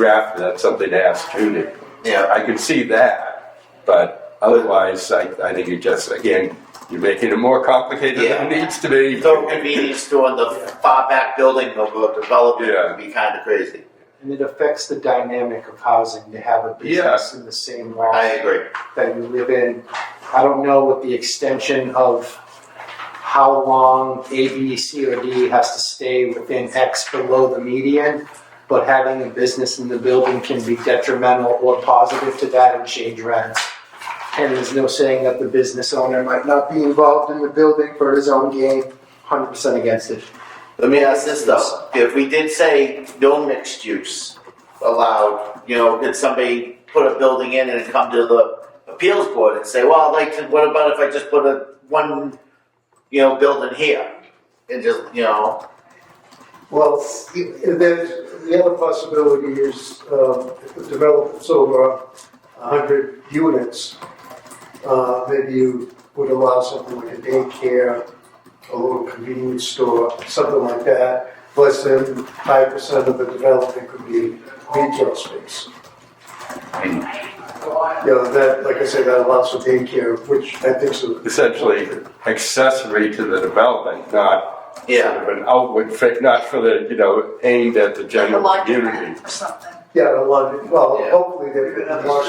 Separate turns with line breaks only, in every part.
draft, that's something to ask Judy.
Yeah.
I could see that, but otherwise, I, I think you just, again, you're making it more complicated than it
Yeah.
needs to be.
Throw a convenience store in the far back building of a development would be kind of crazy.
And it affects the dynamic of housing to have a business in the same lot
I agree.
that you live in. I don't know what the extension of how long A, B, C, or D has to stay within X below the median, but having a business in the building can be detrimental or positive to that and change rents. And there's no saying that the business owner might not be involved in the building for his own gain. 100% against it.
Let me ask this though, if we did say no mixed use allowed, you know, could somebody put a building in and come to the appeals board and say, well, I'd like to, what about if I just put a one, you know, building here? And just, you know,
Well, the, the other possibility is, um, if the development's over a hundred units, uh, maybe you would allow something like a daycare, a little convenience store, something like that. Less than five percent of the development could be retail space. You know, that, like I said, that allows for daycare, which I think is a
Essentially accessory to the development, not sort
yeah,
of an outward fit, not for the, you know, aimed at the
like a
general
laundry
community.
mat or something.
Yeah, a lot, of- well,
Yeah.
hopefully they could have lots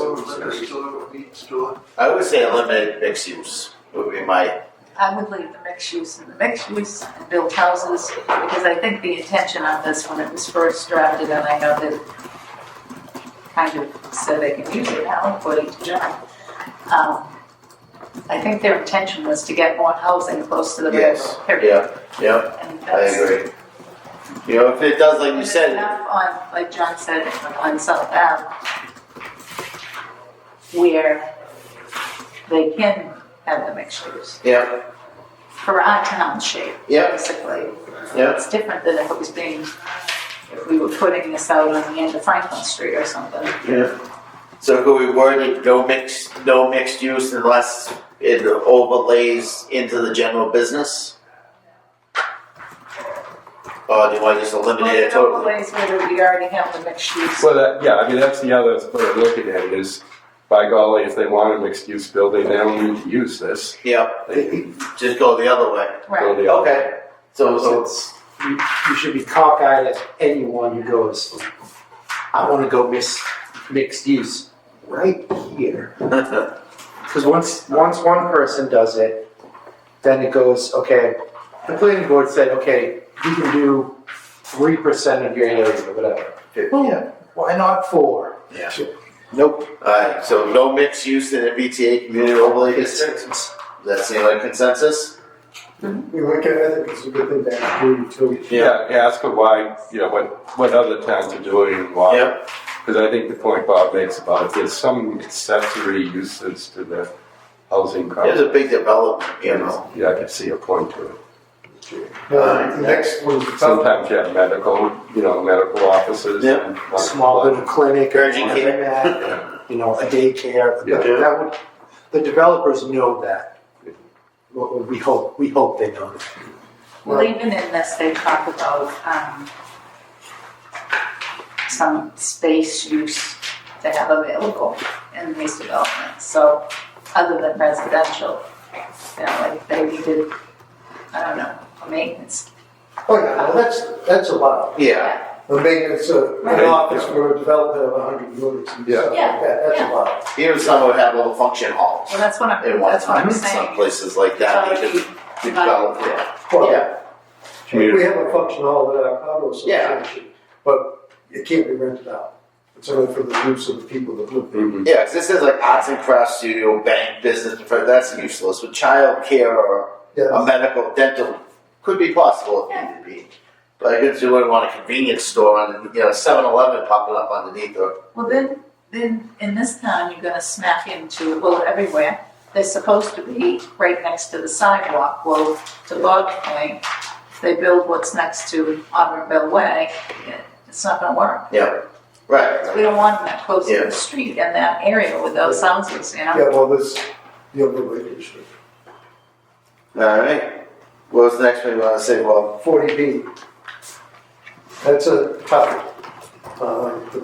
of
I would say eliminate mixed use would be my,
I would leave the mixed use and the mixed use and build houses, because I think the intention on this, when it was first drafted, and I know that kind of said they can use it now, according to John. Um, I think their intention was to get more housing close to the
Yes,
railroad, period.
yeah, yeah,
And
I
that's-
agree. You know, if it does, like you
There's
said,
Enough on, like John said, on South Ave, where they can have the mixtures
yeah,
for our town shape,
Yeah.
basically.
yeah.
It's different than if it was being, if we were putting this out on the end of Franklin Street or something.
Yeah. So could we word it, no mixed, no mixed use unless it overlays into the general business? Or do I just eliminate
Well,
it
in other
totally?
ways, whether we already have the mixed use,
Well, that, yeah, I mean, that's the other way of looking at it is, by golly, if they want a mixed-use building, they don't need to use this.
Yep,
They can
just go the other way.
right?
build the other.
Okay, so, so,
It's- you, you should be cockeyed at anyone who goes, I want to go mis- mixed use right here. Because once, once one person does it, then it goes, okay, the planning board said, okay, you can do 3% of your area, or whatever.
yeah,
Why not four?
yeah.
Nope.
Alright, so no mixed use in a BTA community overlay district,
It's-
does that seem like consensus?
We would get, I think it's a good thing to have too.
Yeah, yeah, ask her why, you know, what, what other towns are doing and why.
Yep.
Because I think the point Bob makes about it, there's some accessory uses to the housing
There's
complex.
a big development, you know,
Yeah, I can see a point to it.
Uh, the next one's the top.
Sometimes you have medical, you know, medical offices.
Yep.
and-
Small little clinic, or
Urgent care.
something like that, you know, a daycare.
Yeah.
That- That would, the developers know that. Well, We hope, we hope they know that.
Well, even in this, they talk about, um, some space use they have available in these developments, so, other than residential. You know, like, they needed, I don't know, maintenance.
Oh, yeah, well, that's, that's a lot.
yeah.
The maintenance of an
Right.
office for a development of a hundred units and
Yeah.
stuff like
Yeah,
that, that's a
yeah.
lot.
Even some would have little function halls
Well, that's what I'm,
in one
that's what
time,
I'm
some
saying.
places like that,
Um,
they could develop, yeah. Yeah,
We have a function hall at our condo association, but it can't be rented out. It's only for the use of the people that live there.
Mhm.
yeah, 'cause this is like arts and crafts studio, bank, business, that's useless, but childcare or
Mm-hmm.
Yeah,
a medical, dental could be possible if needed be. But I guess you wouldn't want a convenience store and, you know, seven eleven popping up underneath or,
Well, then, then in this town, you're gonna smack into, well, everywhere, they're supposed to be right next to the sidewalk, well, to Bob's point, if they build what's next to Auburnville Way, it- it's not gonna work.
yeah, right.
We don't want them that close to
Yeah.
the street in that area with those houses, you know?
yeah, well, this, the other way,
Alright, what
uh,
was the next one you wanna say, Bob?
forty B. That's a tough, uh, the